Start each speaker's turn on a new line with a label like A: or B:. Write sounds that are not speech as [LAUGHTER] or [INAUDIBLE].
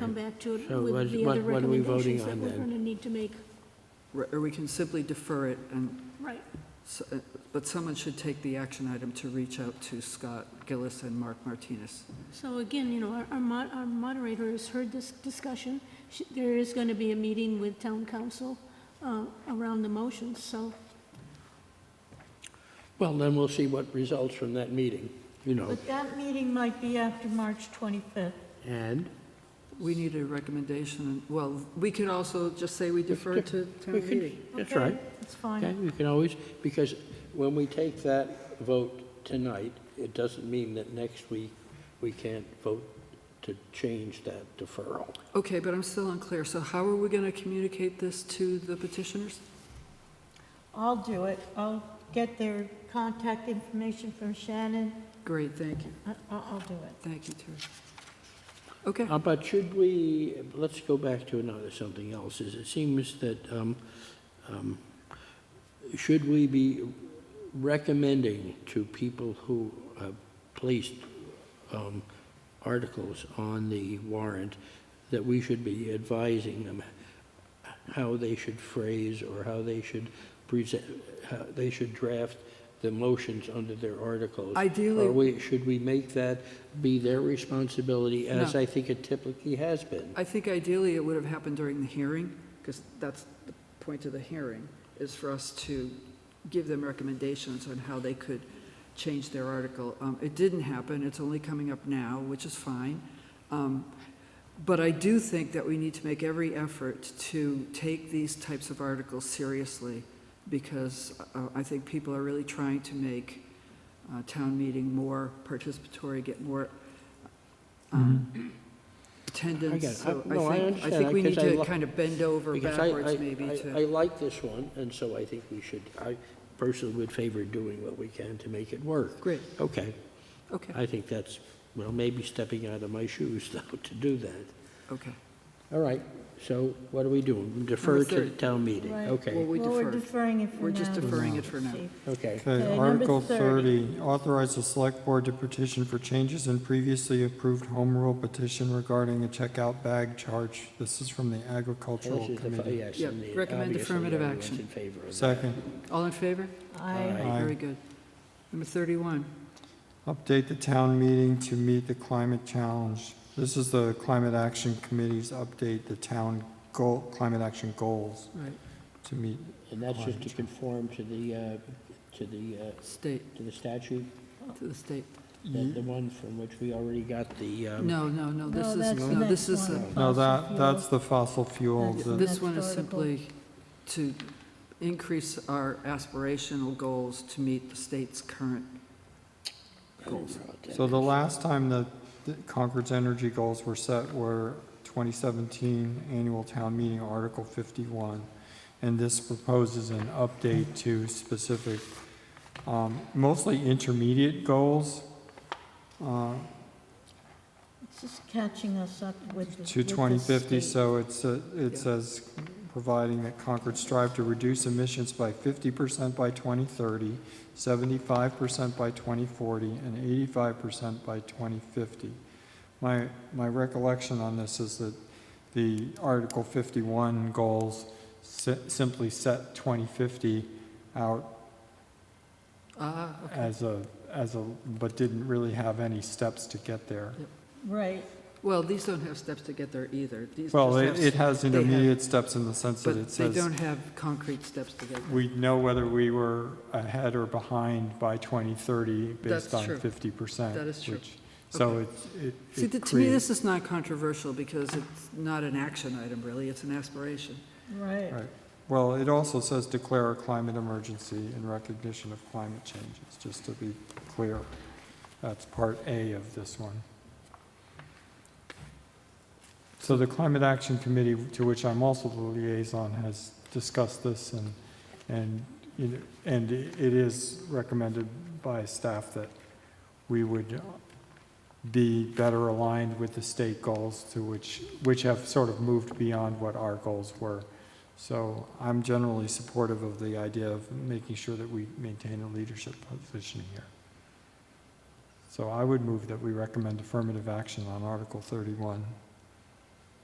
A: come back to it
B: So
A: with
B: what-
A: the
B: what-
A: other
B: what are we voting
A: recommendations that
B: on
A: we're
B: then?
A: going to need to make.
C: Or or we can simply defer it, and,
A: Right,
C: s- uh, but someone should take the action item to reach out to Scott Gillis and Mark Martinez.
A: so again, you know, our- our mo- our moderator has heard this discussion. She- There is going to be a meeting with town council uh, around the motions, so,
B: Well, then we'll see what results from that meeting, you know.
D: But that meeting might be after March 25th.
B: And
C: We need a recommendation, well, we could also just say we defer to town
B: we can,
C: meeting.
B: that's
D: Okay,
B: right.
D: It's
B: Okay,
D: fine.
B: we can always, because when we take that vote tonight, it doesn't mean that next week we can't vote to change that deferral.
C: Okay, but I'm still unclear, so how are we going to communicate this to the petitioners?
D: I'll do it. I'll get their contact information from Shannon.
C: Great, thank you,
D: I- I'll I'll do it.
C: thank you, Terry. Okay,
B: Uh, But should we, let's go back to another, something else, is it seems that, um, um, should we be recommending to people who have placed um, articles on the warrant that we should be advising them how they should phrase or how they should present, how they should draft the motions under their articles?
C: Ideally-
B: Or we, should we make that be their responsibility as
C: No.
B: I think it typically has been?
C: I think ideally it would have happened during the hearing, because that's the point of the hearing, is for us to give them recommendations on how they could change their article. Um, It didn't happen, it's only coming up now, which is fine. Um, But I do think that we need to make every effort to take these types of articles seriously, because uh, I think people are really trying to make uh, town meeting more participatory, get more um,
B: Mm-hmm. I get it.
C: attendance. So
B: I- no, I
C: think, I
B: understand
C: think
B: that,
C: we
B: 'cause
C: need
B: I
C: to
B: like-
C: kind of bend over
B: Because I- I-
C: backwards maybe
B: I- I
C: to,
B: like this one, and so I think we should, I personally would favor doing what we can to make it work.
C: great,
B: Okay,
C: okay,
B: I think that's, well, maybe stepping out of my shoes [LAUGHS] though to do that.
C: okay.
B: All right, so what are we doing? Defer to the
C: 30.
B: town meeting,
D: Right.
C: Well,
B: okay,
C: we
D: Well, we're
C: defer.
D: deferring it for now.
C: We're just deferring it
D: Mr.
C: for now.
D: Chief.
B: okay.
D: Okay,
E: Okay,
D: number
E: Article
D: 30.
E: 30, authorize the select board to petition for changes in previously approved home rule petition regarding a checkout bag charge. This is from the
B: This
E: agricultural
B: is the,
E: committee.
B: yes,
C: Yeah,
B: and the-
C: recommend
B: obviously
C: affirmative
B: everyone's
C: action.
B: in favor of that.
E: Second,
C: All in favor?
D: I,
B: Aye.
C: Very good. Number 31,
E: update the town meeting to meet the climate challenge. This is the Climate Action Committee's update, the town goal, climate action goals
C: right,
E: to meet.
B: And that's just to conform to the, uh, to the, uh,
C: state,
B: to the statute,
C: to the state.
B: the the one from which we already got the, um,
C: No, no, no, this
D: no,
C: is,
D: that's the
C: no, this
D: next
C: is, a-
D: one.
E: No, that,
D: Fossil
E: that's
D: fuels.
E: the fossil fuel.
D: That's
E: the-
D: the-
C: this one is
D: Next article.
C: simply to increase our aspirational goals to meet the state's current goals.
E: So the last time that the Concord's energy goals were set were 2017 Annual Town Meeting, Article 51. And this proposes an update to specific, um, mostly intermediate goals uh,
D: It's just catching us up with. the-
E: to
D: with the
E: 2050.
D: state.
E: So it's, uh, it
C: Yeah.
E: says providing that Concord strive to reduce emissions by 50% by 2030, 75% by 2040, and 85% by 2050. My, my recollection on this is that the Article 51 goals si- simply set 2050 out
C: Ah, okay.
E: as a, as a, but didn't really have any steps to get there.
D: Right,
C: Well, these don't have steps to get there either. These
E: Well,
C: just
E: it
C: have-
E: it has
C: they have-
E: intermediate steps in the sense that
C: But
E: it
C: they
E: says
C: don't have concrete steps to get there.
E: we know whether we were ahead or behind by 2030
C: That's
E: based on
C: true.
E: 50%.
C: That is true.
E: which- So
C: Okay.
E: it's, it
C: See,
E: it
C: th- to me,
E: creates,
C: this is not controversial because it's not an action item, really. It's an aspiration.
D: right.
E: right. Well, it also says declare a climate emergency in recognition of climate change. It's just to be clear. That's part A of this one. So the Climate Action Committee, to which I'm also the liaison, has discussed this and, and, you know, and it is recommended by staff that we would be better aligned with the state goals to which, which have sort of moved beyond what our goals were. So I'm generally supportive of the idea of making sure that we maintain a leadership position here. So I would move that we recommend affirmative action on Article 31.